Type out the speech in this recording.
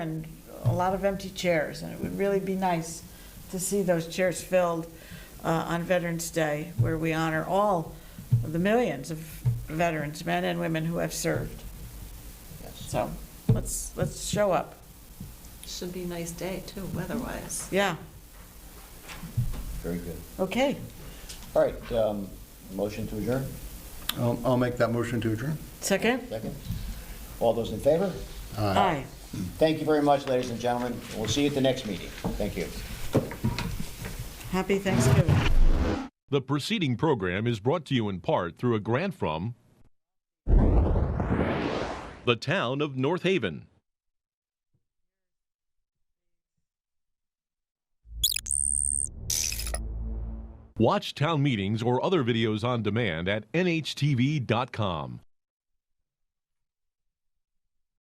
and a lot of empty chairs, and it would really be nice to see those chairs filled uh, on Veterans Day, where we honor all of the millions of veterans, men and women who have served. Yes. So let's, let's show up. Should be a nice day, too, weather-wise. Yeah, Very good. okay. All right, um, motion to adjourn, I'll I'll make that motion to adjourn. Second? second. All those in favor? Aye. Thank you very much, ladies and gentlemen. We'll see you at the next meeting. Thank you. Happy Thanksgiving. The preceding program is brought to you in part through a grant from the town of North Haven. Watch town meetings or other videos on demand at nhtv.com.